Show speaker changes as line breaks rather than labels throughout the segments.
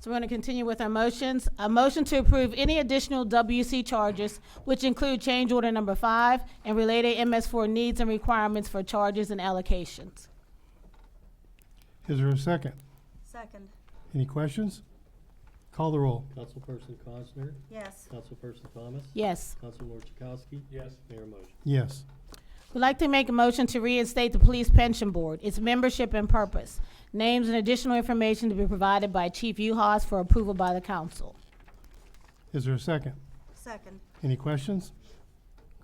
So we're going to continue with our motions. A motion to approve any additional WC charges, which include change order number five and related MS4 needs and requirements for charges and allocations.
Is there a second?
Second,
Any questions? Call the roll.
Councilperson Cosner,
yes.
Councilperson Thomas,
Yes.
Councilor Chakowski. Yes. Mayor motion.
Yes.
We'd like to make a motion to reinstate the Police Pension Board, its membership and purpose, names and additional information to be provided by Chief Uhas for approval by the council.
Is there a second?
Second,
Any questions?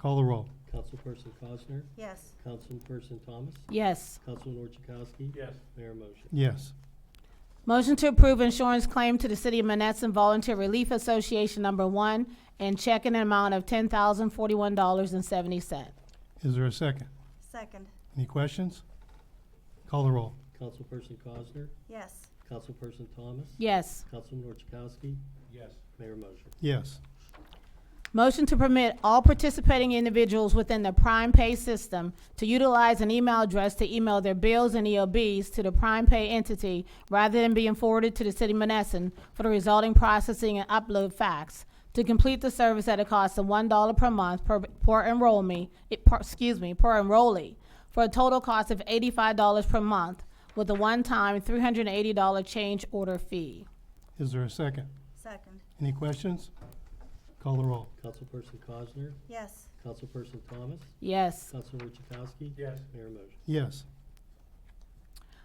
Call the roll.
Councilperson Cosner,
yes.
Councilperson Thomas,
Yes.
Councilor Chakowski. Yes. Mayor motion.
Yes.
Motion to approve insurance claim to the City of Menneson Volunteer Relief Association Number One and check in an amount of ten thousand forty-one dollars and seventy cent.
Is there a second?
Second,
Any questions? Call the roll.
Councilperson Cosner,
yes.
Councilperson Thomas,
Yes.
Councilor Chakowski. Yes. Mayor motion.
Yes.
Motion to permit all participating individuals within the Prime Pay system to utilize an email address to email their bills and EOBs to the Prime Pay entity rather than being forwarded to the City of Menneson for the resulting processing and upload fax. To complete the service at a cost of one dollar per month per, per enrollee, it, per, excuse me, per enrollee, for a total cost of eighty-five dollars per month with a one-time three hundred and eighty dollar change order fee.
Is there a second?
Second,
Any questions? Call the roll.
Councilperson Cosner,
yes.
Councilperson Thomas,
Yes.
Councilor Chakowski. Yes. Mayor motion.
Yes.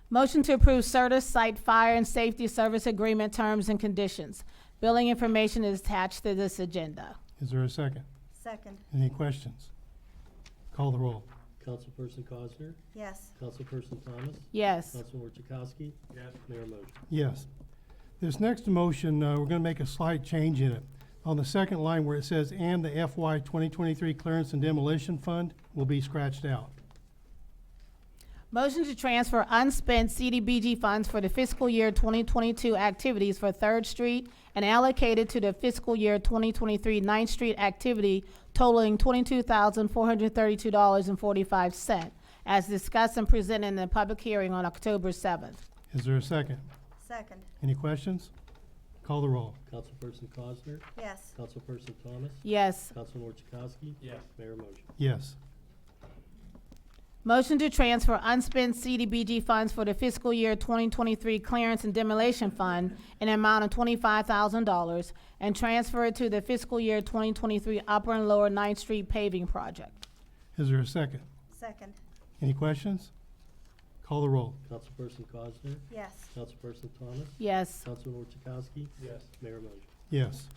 Motion to approve Certus Site Fire and Safety Service Agreement Terms and Conditions. Billing information is attached to this agenda.
Is there a second?
Second,
Any questions? Call the roll.
Councilperson Cosner,
yes.
Councilperson Thomas,
Yes.
Councilor Chakowski. Yes. Mayor motion.
Yes. This next motion, uh, we're gonna make a slight change in it. On the second line where it says, "and the FY 2023 Clearance and Demolition Fund" will be scratched out.
Motion to transfer unspent CDBG funds for the fiscal year 2022 activities for Third Street and allocated to the fiscal year 2023 Ninth Street activity totaling $22,432.45, as discussed and presented in the public hearing on October 7th.
Is there a second?
Second,
Any questions? Call the roll.
Councilperson Cosner,
yes.
Councilperson Thomas,
Yes.
Councilor Chakowski. Yes. Mayor motion.
Yes.
Motion to transfer unspent CDBG funds for the fiscal year 2023 Clearance and Demolition Fund in an amount of $25,000 and transfer it to the fiscal year 2023 Upper and Lower Ninth Street paving project.
Is there a second?
Second,
Any questions? Call the roll.
Councilperson Cosner,
yes.
Councilperson Thomas,
Yes.
Councilor Chakowski. Yes. Mayor motion.
Yes.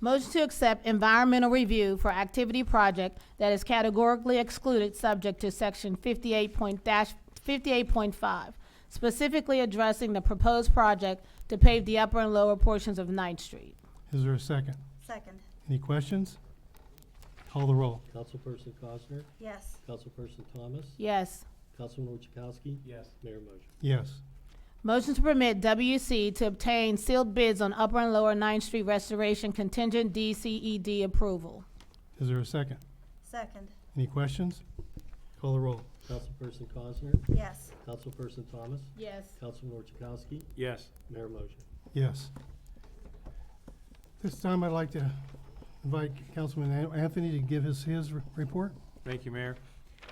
Motion to accept environmental review for activity project that is categorically excluded subject to section fifty-eight point dash, fifty-eight point five, specifically addressing the proposed project to pave the upper and lower portions of Ninth Street.
Is there a second?
Second,
Any questions? Call the roll.
Councilperson Cosner,
yes.
Councilperson Thomas,
Yes.
Councilor Chakowski. Yes. Mayor motion.
Yes.
Motion to permit WC to obtain sealed bids on upper and lower Ninth Street restoration contingent DCED approval.
Is there a second?
Second,
Any questions? Call the roll.
Councilperson Cosner,
yes.
Councilperson Thomas,
Yes.
Councilor Chakowski.
Yes.
Mayor motion.
Yes. This time I'd like to invite Councilman An- Anthony to give us his r- report.
Thank you, Mayor.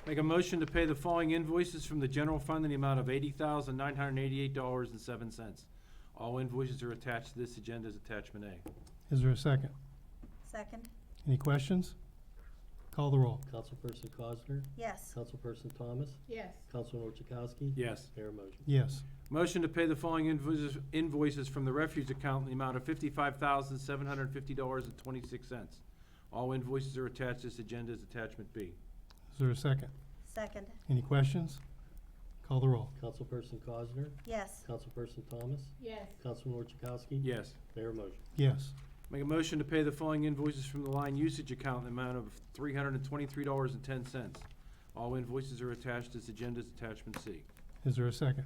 Make a motion to pay the following invoices from the general fund in the amount of eighty thousand nine hundred and eighty-eight dollars and seven cents. All invoices are attached to this agenda as attachment A.
Is there a second?
Second,
Any questions? Call the roll.
Councilperson Cosner,
yes.
Councilperson Thomas,
Yes.
Councilor Chakowski.
Yes.
Mayor motion.
Yes.
Motion to pay the following invoices, invoices from the refuge account in the amount of fifty-five thousand seven hundred and fifty dollars and twenty-six cents. All invoices are attached to this agenda as attachment B.
Is there a second?
Second,
Any questions? Call the roll.
Councilperson Cosner,
yes.
Councilperson Thomas,
Yes.
Councilor Chakowski.
Yes.
Mayor motion.
Yes.
Make a motion to pay the following invoices from the line usage account in the amount of three hundred and twenty-three dollars and ten cents. All invoices are attached to this agenda as attachment C.
Is there a second?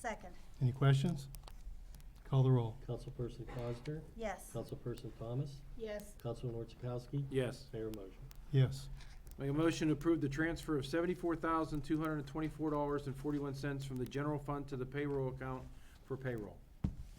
Second,
Any questions? Call the roll.
Councilperson Cosner,
yes.
Councilperson Thomas,
Yes.
Councilor Chakowski.
Yes.
Mayor motion.
Yes.
Make a motion to approve the transfer of seventy-four thousand, two hundred and twenty-four dollars and forty-one cents from the general fund to the payroll account for payroll.